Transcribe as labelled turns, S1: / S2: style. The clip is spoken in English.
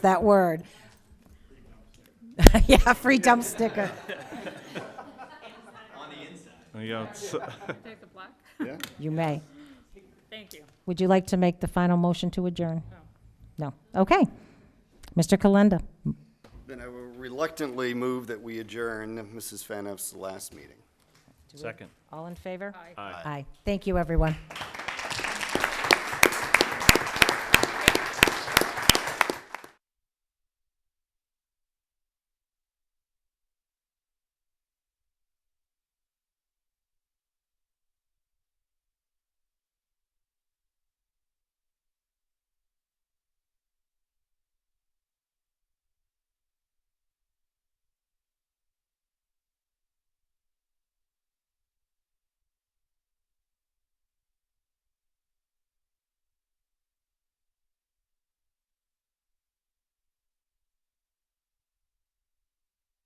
S1: that word. yeah, free dump sticker.
S2: There you go. It's-
S3: Take the black?
S1: You may.
S3: Thank you.
S1: Would you like to make the final motion to adjourn? No. Okay. Mr. Kalenda,
S4: Then I will reluctantly move that we adjourn Mrs. Faniff's last meeting.
S2: Second.
S1: all in favor?
S3: Aye.
S2: Aye.
S1: Aye. Thank you, everyone.